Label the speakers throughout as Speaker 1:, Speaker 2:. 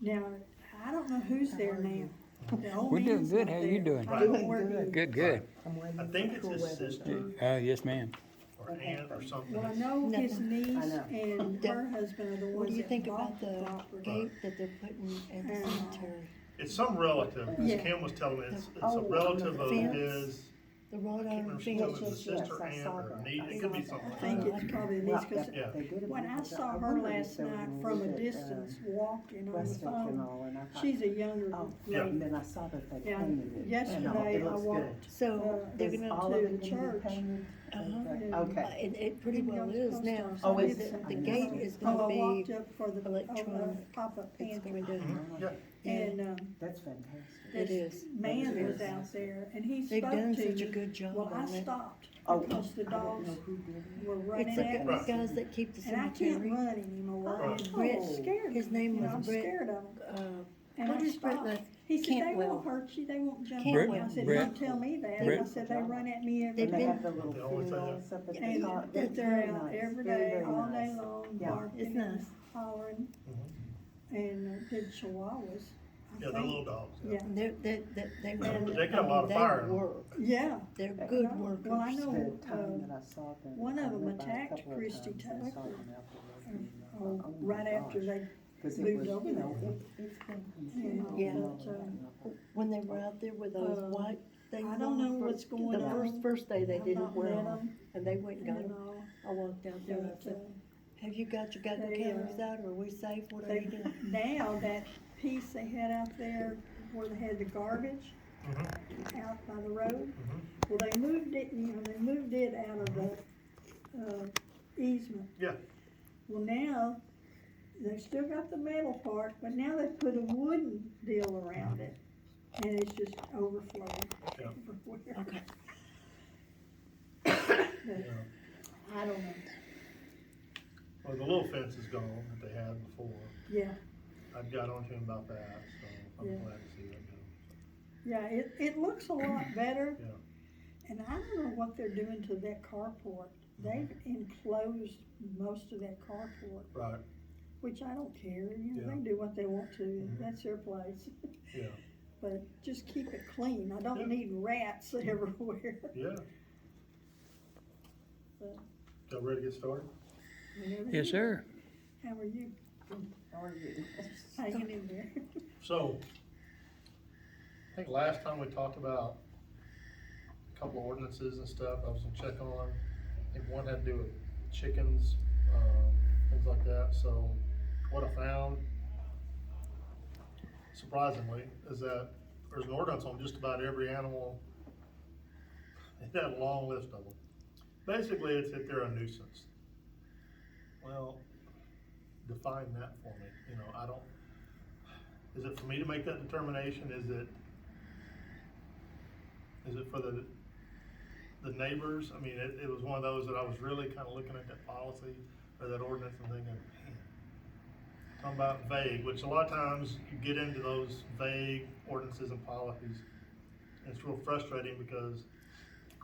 Speaker 1: Now, I don't know who's there now. The old
Speaker 2: We're doing
Speaker 1: man's
Speaker 2: good.
Speaker 1: not
Speaker 2: How you
Speaker 1: there.
Speaker 2: doing?
Speaker 1: I don't know where he
Speaker 3: Doing
Speaker 1: is.
Speaker 2: Good, good.
Speaker 3: I'm waiting
Speaker 4: I think it's
Speaker 3: for
Speaker 4: his
Speaker 3: weather.
Speaker 4: sister.
Speaker 2: Uh, yes, ma'am.
Speaker 4: or aunt or
Speaker 1: Well, I
Speaker 4: something.
Speaker 1: know his
Speaker 5: Nothing.
Speaker 1: niece
Speaker 3: know.
Speaker 1: and her husband are the
Speaker 5: What do
Speaker 1: ones
Speaker 5: you
Speaker 1: that
Speaker 5: think about
Speaker 1: bought the
Speaker 5: the
Speaker 1: property.
Speaker 5: gate that they're putting at the
Speaker 1: Uh,
Speaker 5: cemetery?
Speaker 4: It's some relative, as
Speaker 1: Yeah.
Speaker 4: Kim was telling me, it's, it's
Speaker 3: Oh,
Speaker 4: a
Speaker 3: on the
Speaker 4: relative of
Speaker 5: fence?
Speaker 4: his,
Speaker 5: The
Speaker 4: I
Speaker 5: wrought
Speaker 4: can't
Speaker 5: iron
Speaker 4: remember if she told
Speaker 5: fence?
Speaker 4: me it
Speaker 3: Yes,
Speaker 4: was
Speaker 3: yes,
Speaker 4: sister,
Speaker 3: I
Speaker 4: aunt,
Speaker 3: saw
Speaker 4: or
Speaker 3: that.
Speaker 4: niece, it could be something
Speaker 1: I
Speaker 4: like
Speaker 1: think
Speaker 4: that.
Speaker 1: it's probably
Speaker 3: Yeah,
Speaker 1: these, cause
Speaker 3: yeah, they did it
Speaker 1: when I
Speaker 3: because
Speaker 1: saw her
Speaker 3: wondered if
Speaker 1: last
Speaker 3: they were
Speaker 1: night
Speaker 3: gonna
Speaker 1: from a
Speaker 3: leave it, uh,
Speaker 1: distance, walking on the
Speaker 3: Westfield and
Speaker 1: phone,
Speaker 3: all, and I thought,
Speaker 1: she's a younger
Speaker 3: oh,
Speaker 1: lady.
Speaker 3: And then I saw that they
Speaker 1: Yeah,
Speaker 3: painted it. and all. It
Speaker 1: yesterday I
Speaker 3: looks good.
Speaker 1: walked,
Speaker 5: So
Speaker 1: Uh,
Speaker 5: they're
Speaker 3: Is
Speaker 5: gonna,
Speaker 3: all
Speaker 1: to
Speaker 3: of it gonna be
Speaker 1: church.
Speaker 3: painted?
Speaker 5: Uh-huh.
Speaker 3: Okay,
Speaker 1: And-
Speaker 5: uh,
Speaker 3: Okay,
Speaker 5: it, it pretty
Speaker 1: Didn't go
Speaker 5: well
Speaker 1: to the
Speaker 5: is
Speaker 1: post
Speaker 5: now.
Speaker 1: office.
Speaker 3: Oh,
Speaker 5: The-
Speaker 3: is
Speaker 5: The
Speaker 3: it?
Speaker 5: gate is
Speaker 1: oh,
Speaker 5: gonna
Speaker 1: I walked
Speaker 5: be,
Speaker 1: up for the, uh,
Speaker 5: electronic.
Speaker 1: pop-up
Speaker 5: it's
Speaker 1: pantry,
Speaker 5: going to,
Speaker 4: Mhm, Yeah,
Speaker 1: Mm-hmm. and,
Speaker 5: and
Speaker 1: um,
Speaker 3: that's fantastic.
Speaker 5: it
Speaker 1: this
Speaker 5: is.
Speaker 1: man
Speaker 3: It
Speaker 1: was
Speaker 3: is.
Speaker 1: out there, and he
Speaker 5: They've
Speaker 1: spoke
Speaker 5: done
Speaker 1: to
Speaker 5: such a
Speaker 1: me.
Speaker 5: good job
Speaker 1: Well, I
Speaker 5: on it.
Speaker 1: stopped,
Speaker 3: Oh,
Speaker 1: because the
Speaker 3: I don't
Speaker 1: dogs
Speaker 3: know who did it.
Speaker 1: were
Speaker 5: It's
Speaker 1: running
Speaker 5: like
Speaker 1: at
Speaker 5: those
Speaker 1: us,
Speaker 5: guys that keep the
Speaker 1: and I can't
Speaker 5: cemetery.
Speaker 1: run anymore,
Speaker 4: Right.
Speaker 1: I'm
Speaker 5: Brett,
Speaker 1: scared,
Speaker 5: Oh. his
Speaker 1: you
Speaker 5: name
Speaker 1: know,
Speaker 5: was
Speaker 1: I'm
Speaker 5: Brett,
Speaker 1: scared of them.
Speaker 5: uh,
Speaker 1: And
Speaker 5: What
Speaker 1: I
Speaker 5: is Brett
Speaker 1: stopped.
Speaker 5: like?
Speaker 1: He said, they
Speaker 5: Cantwell.
Speaker 1: won't hurt you, they won't jump on you. I
Speaker 5: Cantwell.
Speaker 1: said,
Speaker 2: Brett.
Speaker 1: don't tell me that. I
Speaker 2: Brett.
Speaker 1: said, they run at me every
Speaker 3: And
Speaker 5: They've
Speaker 3: they
Speaker 1: day.
Speaker 3: have the little
Speaker 4: They always say that.
Speaker 3: fields up at the
Speaker 1: And
Speaker 3: top.
Speaker 1: that
Speaker 3: It's
Speaker 1: they're
Speaker 3: very
Speaker 1: out
Speaker 3: nice,
Speaker 1: every
Speaker 3: very,
Speaker 1: day,
Speaker 3: very
Speaker 1: all day
Speaker 3: nice.
Speaker 1: long,
Speaker 3: Yeah.
Speaker 5: It's
Speaker 1: barking and
Speaker 5: nice.
Speaker 1: hollering. And uh, did chihuahuas,
Speaker 4: Mm-hmm. yeah,
Speaker 1: I
Speaker 4: the
Speaker 1: think.
Speaker 4: little dogs, yeah.
Speaker 1: Yeah,
Speaker 5: and they're, they, they, they run.
Speaker 4: They got a
Speaker 5: I mean,
Speaker 4: lot of fire in
Speaker 5: They
Speaker 4: them.
Speaker 5: work,
Speaker 1: yeah.
Speaker 5: they're
Speaker 3: Yeah.
Speaker 1: No,
Speaker 5: good
Speaker 1: Well, I
Speaker 5: workers.
Speaker 1: know,
Speaker 3: The
Speaker 1: uh,
Speaker 3: time that I saw them,
Speaker 1: one
Speaker 3: I
Speaker 1: of 'em
Speaker 3: went by a
Speaker 1: attacked
Speaker 3: couple of
Speaker 1: Christy
Speaker 3: times and I saw
Speaker 1: Tucker,
Speaker 3: them out there
Speaker 1: or-
Speaker 3: working, and I
Speaker 1: or
Speaker 3: thought, oh my
Speaker 1: right after
Speaker 3: gosh.
Speaker 1: they,
Speaker 3: 'Cause it
Speaker 1: moved
Speaker 3: was,
Speaker 1: over
Speaker 3: you know,
Speaker 1: there.
Speaker 3: it- it's been
Speaker 1: Yeah.
Speaker 3: continuing
Speaker 5: Yeah.
Speaker 3: on
Speaker 1: But, uh,
Speaker 3: and on.
Speaker 5: When they were out there with those
Speaker 1: Uh,
Speaker 5: white things
Speaker 1: I
Speaker 5: on.
Speaker 1: don't know
Speaker 5: the
Speaker 1: what's
Speaker 5: first-
Speaker 1: going
Speaker 5: The first,
Speaker 1: on.
Speaker 5: first day they
Speaker 1: I've
Speaker 5: didn't
Speaker 1: not
Speaker 5: wear
Speaker 1: met
Speaker 5: them,
Speaker 1: 'em
Speaker 5: and they went and got
Speaker 1: and
Speaker 5: them.
Speaker 1: all,
Speaker 5: I walked out there and I
Speaker 1: but,
Speaker 5: said,
Speaker 1: uh,
Speaker 5: have you got your goddamn
Speaker 1: they, uh,
Speaker 5: cameras out, or are we safe, what are
Speaker 1: they,
Speaker 5: you doing?
Speaker 1: now that piece they had out there where they had the garbage
Speaker 4: Mhm,
Speaker 1: out by the road,
Speaker 4: mhm.
Speaker 1: Well, they moved it, you know, they moved it out of the, uh, easement.
Speaker 4: Yeah.
Speaker 1: Well, now, they've still got the metal part, but now they've put a wooden deal around it, and it's just overflowing
Speaker 4: Yeah.
Speaker 1: everywhere.
Speaker 5: Okay.
Speaker 1: But
Speaker 4: Yeah.
Speaker 1: I don't know,
Speaker 4: Well, the little fence is gone that they had before.
Speaker 1: yeah,
Speaker 4: I got on to him about that, so
Speaker 1: Yeah.
Speaker 4: I'm glad to see that go.
Speaker 1: yeah, it, it looks a lot better.
Speaker 4: Yeah.
Speaker 1: And I don't know what they're doing to that carport,
Speaker 4: Mm-hmm.
Speaker 1: they've enclosed most of that carport.
Speaker 4: Right,
Speaker 1: Which I don't care, you know,
Speaker 4: Yeah.
Speaker 1: they do what they want to,
Speaker 4: Mhm.
Speaker 1: that's their place.
Speaker 4: Yeah.
Speaker 1: But just keep it clean, I
Speaker 4: Yeah.
Speaker 1: don't need rats everywhere.
Speaker 4: yeah.
Speaker 1: But-
Speaker 4: Y'all ready to get started?
Speaker 1: Whenever
Speaker 2: Yes,
Speaker 1: you-
Speaker 2: sir.
Speaker 1: How are you,
Speaker 3: How are you?
Speaker 1: hanging in there?
Speaker 4: So, I think last time we talked about a couple of ordinances and stuff, I was gonna check on. I think one had to do with chickens, um, things like that, so what I found surprisingly is that there's an ordinance on just about every animal. It had a long list of them. Basically, it's if they're a nuisance. Well, define that for me, you know, I don't, is it for me to make that determination? Is it, is it for the, the neighbors? I mean, it, it was one of those that I was really kind of looking at that policy or that ordinance and thinking, man, talking about vague, which a lot of times you get into those vague ordinances and policies. and It's real frustrating because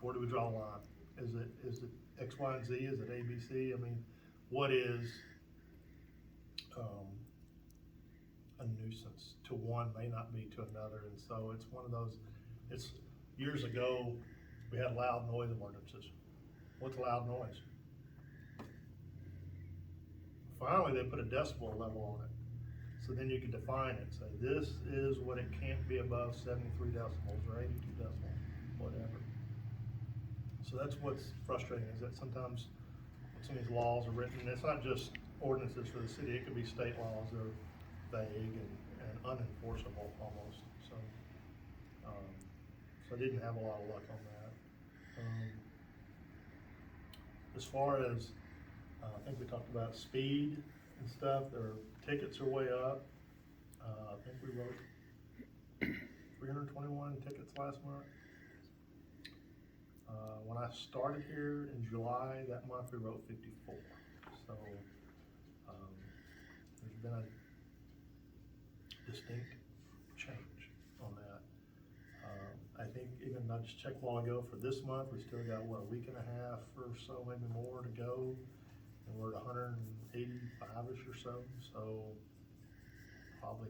Speaker 4: where do we draw the line? Is it, is it X, Y, and Z? Is it A, B, C? I mean, what is, um, a nuisance to one may not be to another, and so it's one of those, it's, years ago, we had loud noise ordinances. What's loud noise? Finally, they put a decibel level on it, so then you can define it, say, this is what it can't be above seventy-three decibels or eighty-two decibels, whatever. So that's what's frustrating, is that sometimes, some of these laws are written, and it's not just ordinances for the city, it could be state laws or vague and, and unenforceable almost, so. um, So I didn't have a lot of luck on that. Um, As far as, uh, I think we talked about speed and stuff, their tickets are way up. Uh, I think we wrote three hundred twenty-one tickets last month. Uh, when I started here in July, that month we wrote fifty-four, so, um, there's been a distinct change on that. Um, I think even I just checked a while ago for this month, we still got, what, a week and a half or so, maybe more to go. And we're at hundred and eighty-five-ish or so, so probably